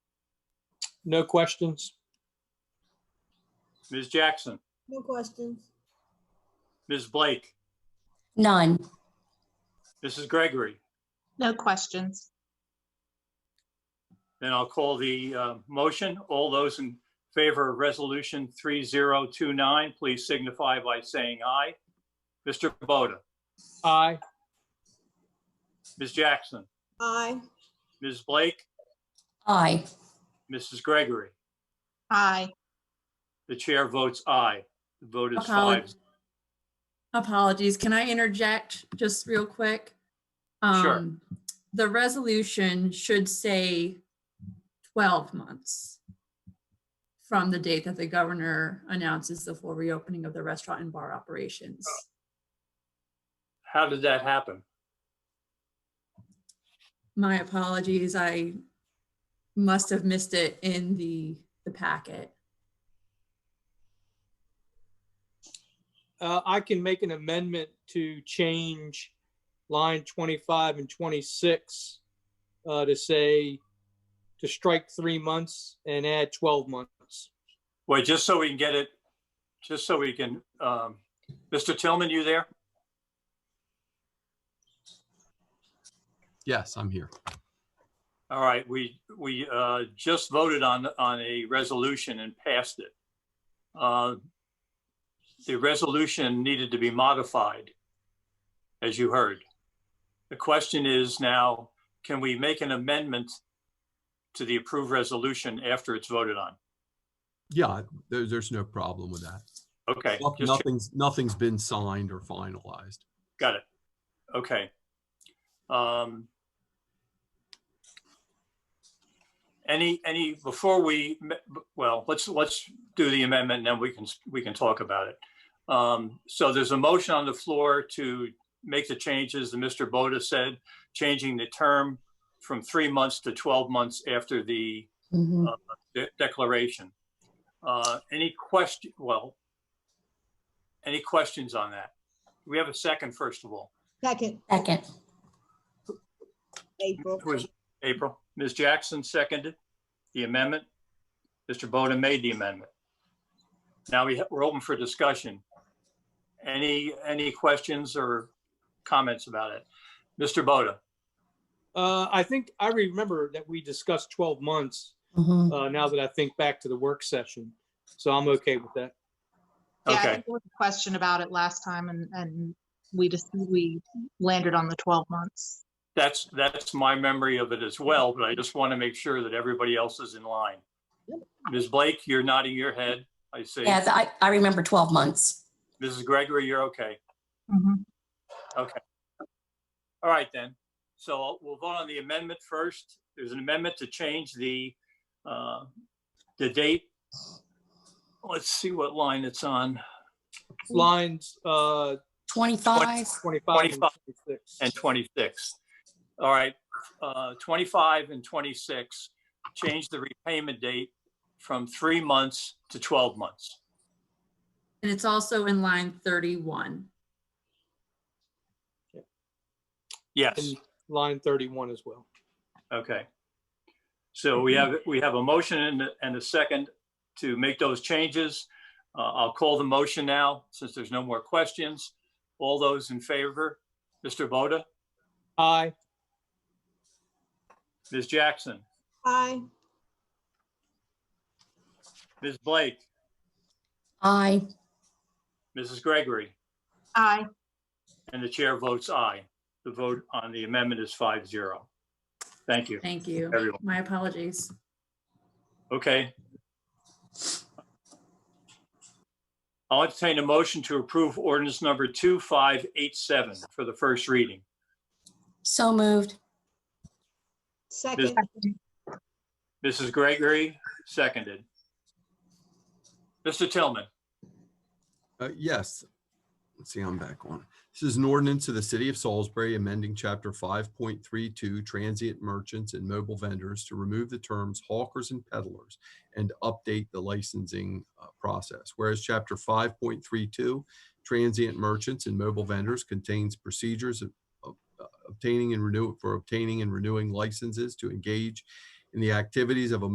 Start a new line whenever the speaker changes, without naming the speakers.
No questions?
Ms. Jackson,
No questions.
Ms. Blake,
None.
Mrs. Gregory.
No questions.
Then I'll call the uh, motion. All those in favor of Resolution 3029, please signify by saying aye. Mr. Boda,
Aye.
Ms. Jackson,
Aye.
Ms. Blake,
Aye.
Mrs. Gregory.
Aye.
The chair votes aye. The vote is
Okay.
five.
Apologies, can I interject just real quick?
Sure.
Um, The resolution should say 12 months from the date that the governor announces the full reopening of the restaurant and bar operations.
How did that happen?
My apologies, I must have missed it in the, the packet.
Uh, I can make an amendment to change line 25 and 26 uh, to say, to strike three months and add 12 months.
Wait, just so we can get it, just so we can, um, Mr. Tillman, you there?
Yes, I'm here.
All right, we, we uh, just voted on, on a resolution and passed it. Uh, The resolution needed to be modified, as you heard. The question is now, can we make an amendment to the approved resolution after it's voted on?
Yeah, there, there's no problem with that.
Okay,
Noth-
just
Nothing's, nothing's been signed or finalized.
Got it. Okay. Um, Any, any, before we, well, let's, let's do the amendment and then we can, we can talk about it. Um, So there's a motion on the floor to make the changes that Mr. Boda said, changing the term from three months to 12 months after the uh,
Mhm.
de- declaration. Uh, Any question, well, any questions on that? We have a second, first of all.
Second,
Second.
April.
It was April. Ms. Jackson seconded the amendment. Mr. Bowden made the amendment. Now we, ha- we're open for discussion. Any, any questions or comments about it? Mr. Boda,
Uh, I think I remember that we discussed 12 months
Mhm.
uh, now that I think back to the work session. So I'm okay with that.
Yeah, I
okay,
think there was a question about it last time and, and we just, we landed on the 12 months.
that's, that's my memory of it as well, but I just want to make sure that everybody else is in line. Ms. Blake, you're nodding your head, I see.
Yeah, I, I remember 12 months.
Mrs. Gregory, you're okay.
Mhm.
All right then. So we'll vote on the amendment first. There's an amendment to change the, uh, the date. Let's see what line it's on.
Lines uh,
25.
25 and
25
26.
and 26. All right, uh, 25 and 26, change the repayment date from three months to 12 months.
And it's also in line 31.
Yes,
And line 31 as well.
okay. So we have, we have a motion and, a- and a second to make those changes. Uh, I'll call the motion now, since there's no more questions. All those in favor, Mr. Boda,
Aye.
Ms. Jackson,
Aye.
Ms. Blake,
Aye.
Mrs. Gregory,
Aye.
and the chair votes aye. The vote on the amendment is five zero. Thank you,
Thank you.
everyone.
My apologies.
Okay. I'll entertain a motion to approve ordinance number 2587 for the first reading.
So moved.
Second,
Mrs. Gregory, seconded. Mr. Tillman,
Uh, yes. Let's see, I'm back on. This is an ordinance to the city of Salisbury amending chapter five point three two transient merchants and mobile vendors to remove the terms hawkers and peddlers and update the licensing uh, process. Whereas chapter five point three two transient merchants and mobile vendors contains procedures of of, uh, obtaining and renew for obtaining and renewing licenses to engage in the activities of a